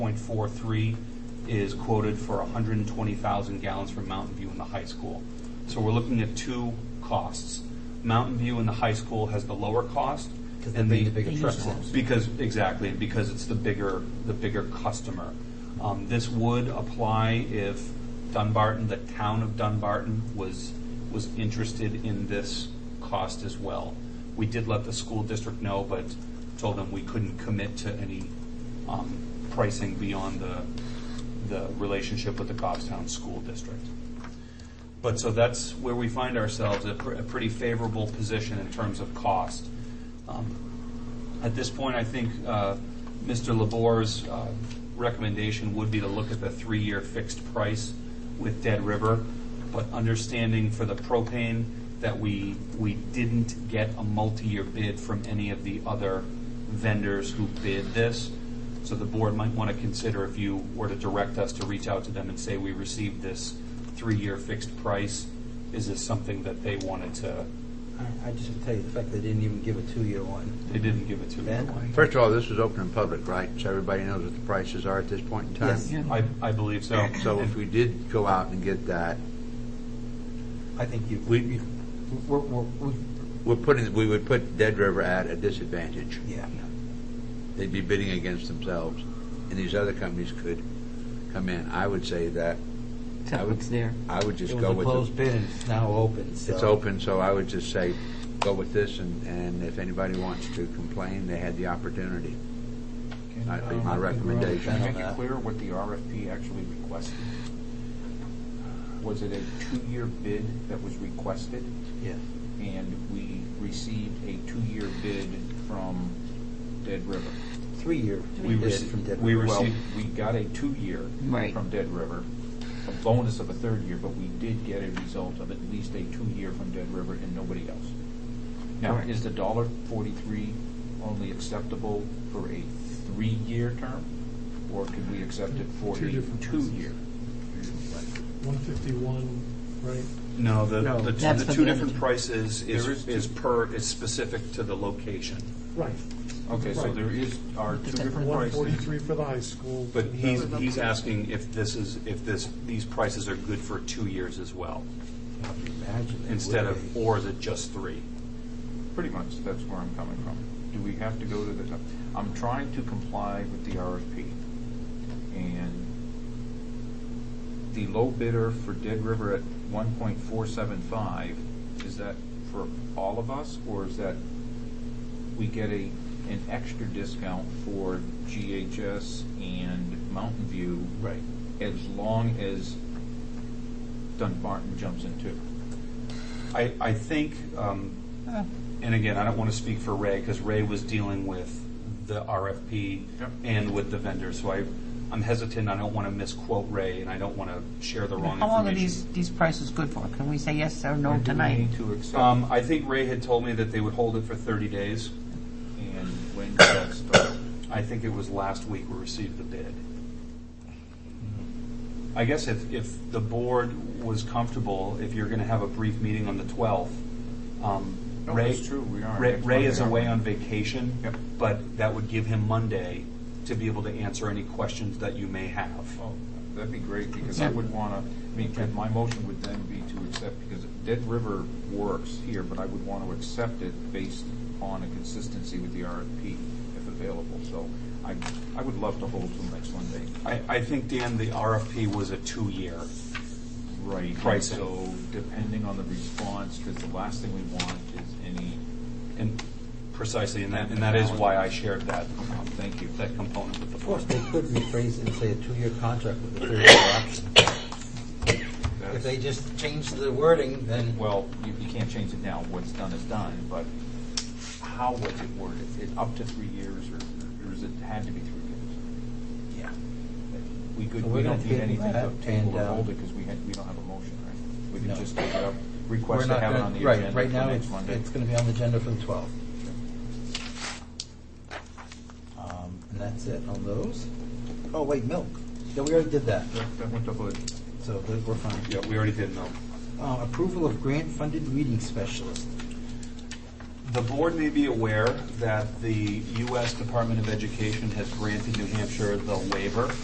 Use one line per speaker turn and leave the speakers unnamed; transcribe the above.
1.43 is quoted for 120,000 gallons from Mountain View and the high school. So we're looking at two costs. Mountain View and the high school has the lower cost.
'Cause they
and
bring the bigger
Be-
trucks.
Because, exactly, because it's the bigger, the bigger customer. Um, This would apply if Dunbarton, the town of Dunbarton, was, was interested in this cost as well. We did let the school district know, but told them we couldn't commit to any um, pricing beyond the, the relationship with the Goffstown School District. But so that's where we find ourselves, a pr- a pretty favorable position in terms of cost. Um, At this point, I think uh, Mr. Labor's uh, recommendation would be to look at the three-year fixed price with Dead River, but understanding for the propane that we, we didn't get a multi-year bid from any of the other vendors who bid this. So the board might want to consider if you were to direct us to reach out to them and say, we received this three-year fixed price, is this something that they wanted to,
I, I just would tell you, the fact they didn't even give a two-year one.
they didn't give it to
Ben?
anyone?
First of all, this is open and public, right? So everybody knows what the prices are at this point in time?
Yes.
I, I believe so.
So if we did go out and get that,
I think you,
We-
you- we're, we're, we,
we're putting, we would put Dead River at a disadvantage.
yeah.
They'd be bidding against themselves, and these other companies could come in. I would say that, I
Tell
would-
what's there.
I would
It
just
was
go
a
with
closed
the...
bid and it's now open, so.
It's open, so I would just say, go with this, and, and if anybody wants to complain, they had the opportunity. That'd be my recommendation.
Can you make it clear what the RFP actually requested? Was it a two-year bid that was requested,
Yeah.
and we received a two-year bid from Dead River?
Three-year
We
bid
rece-
from Denver.
we rece-
Well,
received-
we got a two-year
Right.
from Dead River, a bonus of a third year, but we did get a result of at least a two-year from Dead River and nobody else. Now,
Correct.
is the dollar forty-three only acceptable for a three-year term? Or could we accept it for a
Two different
two-year?
151, right?
No, the,
No.
the two,
That's
the
for
two
the
different
energy.
prices is,
There is two.
is per, is specific to the location.
Right.
Okay, so
Right.
there is, are two different prices.
143 for the high school.
But
and
he's,
then-
he's asking if this is, if this, these prices are good for two years as well,
Imagine it
instead
would
of,
be.
or is it just three?
Pretty much, that's where I'm coming from. Do we have to go to the, I'm trying to comply with the RFP. And the low bidder for Dead River at one point four seven five, is that for all of us? Or is that we get a, an extra discount for GHS and Mountain View?
Right.
As long as Dunbarton jumps in too?
I, I think, um, and again, I don't want to speak for Ray, because Ray was dealing with the RFP
Yep.
and with the vendor, so I, I'm hesitant, I don't want to misquote Ray, and I don't want to share the wrong
How long are these,
information.
these prices good for? Can we say yes or
Or
no
do we
tonight?
need to accept?
Um, I think Ray had told me that they would hold it for thirty days.
And when did that start?
I think it was last week we received the bid. I guess if, if the board was comfortable, if you're gonna have a brief meeting on the twelfth, um,
No,
Ray.
that's true, we are.
Ray,
Next
Ray is
Monday,
away on
aren't
vacation.
Yep.
But that would give him Monday to be able to answer any questions that you may have.
Well, that'd be great, because I would want to, I mean, Ken, my motion would then be to accept, because Dead River works here, but I would want to accept it based on a consistency with the RFP, if available. So I, I would love to hold till next Monday.
I, I think, Dan, the RFP was a two-year.
Right.
Pricing.
So depending on the response, because the last thing we want is any,
And precisely, and that, and that is why I shared that,
uh, thank you.
that component with the
Of
board.
course, they could rephrase it and say a two-year contract with a third-year option. If
That's-
they just change the wording, then.
Well, you, you can't change it now, what's done is done, but how was it worded? Is it up to three years, or, or is it had to be three years?
Yeah.
We could,
So we're
we
gonna
don't need
table
anything to
that,
table
and,
or
uh,
hold it, because we had, we don't have a motion, right? We
No.
can just take it up,
We're
request to
not
have it
gonna-
on the
right,
agenda
Right
for
now,
next
it's,
Monday.
it's going to be on the agenda for the 12th. Um, And that's it on those. Oh, wait, milk. Yeah, we already did that,
That that went to Hood.
so th- we're fine.
Yeah, we already did know.
Uh, Approval of grant-funded reading specialist.
The board may be aware that the U.S. Department of Education has granted New Hampshire the waiver